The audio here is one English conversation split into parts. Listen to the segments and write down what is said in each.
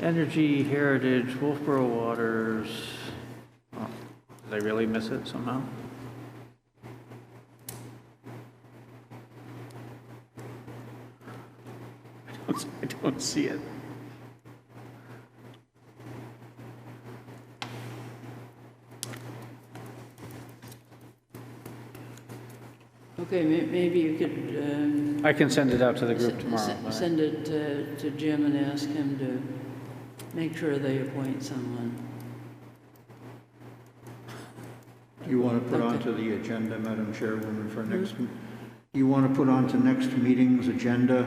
Energy Heritage, Wolfboro Waters. Oh, Did I really miss it somehow? I don't, I don't see it. Okay, may- maybe you could um, I can send it out to the s- group tomorrow. s- but- Send it to to Jim and ask him to make sure they appoint someone. You want to put onto the agenda, Madam Chairwoman, for Hmm? next, you want to put onto next meeting's agenda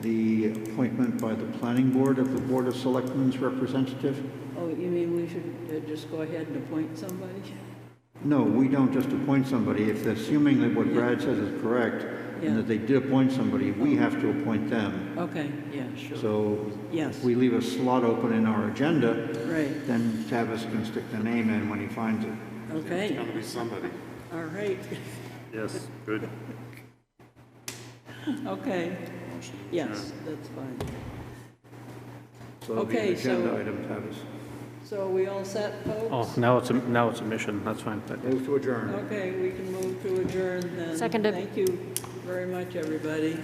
the appointment by the planning board of the Board of Selectmen's representative? Oh, you mean we should uh, just go ahead and appoint somebody? No, we don't just appoint somebody. If, assuming that what Brad says is correct, and Yeah. Oh. that they did appoint somebody, we have to appoint them. Okay, yeah, sure. So Yes, if we leave a slot open in our agenda, right, then Tavis can stick the name in when he finds it. okay, Gotta be somebody. all right, Yes, good. okay. Yes, that's fine. So it'll be an Okay, so- agenda item, Tavis. So are we all set, Oh, folks? now it's, a now it's a mission, that's fine. but- Move to adjourn. Oh. Okay, we can move to adjourn then. Seconded. Thank you very much, everybody.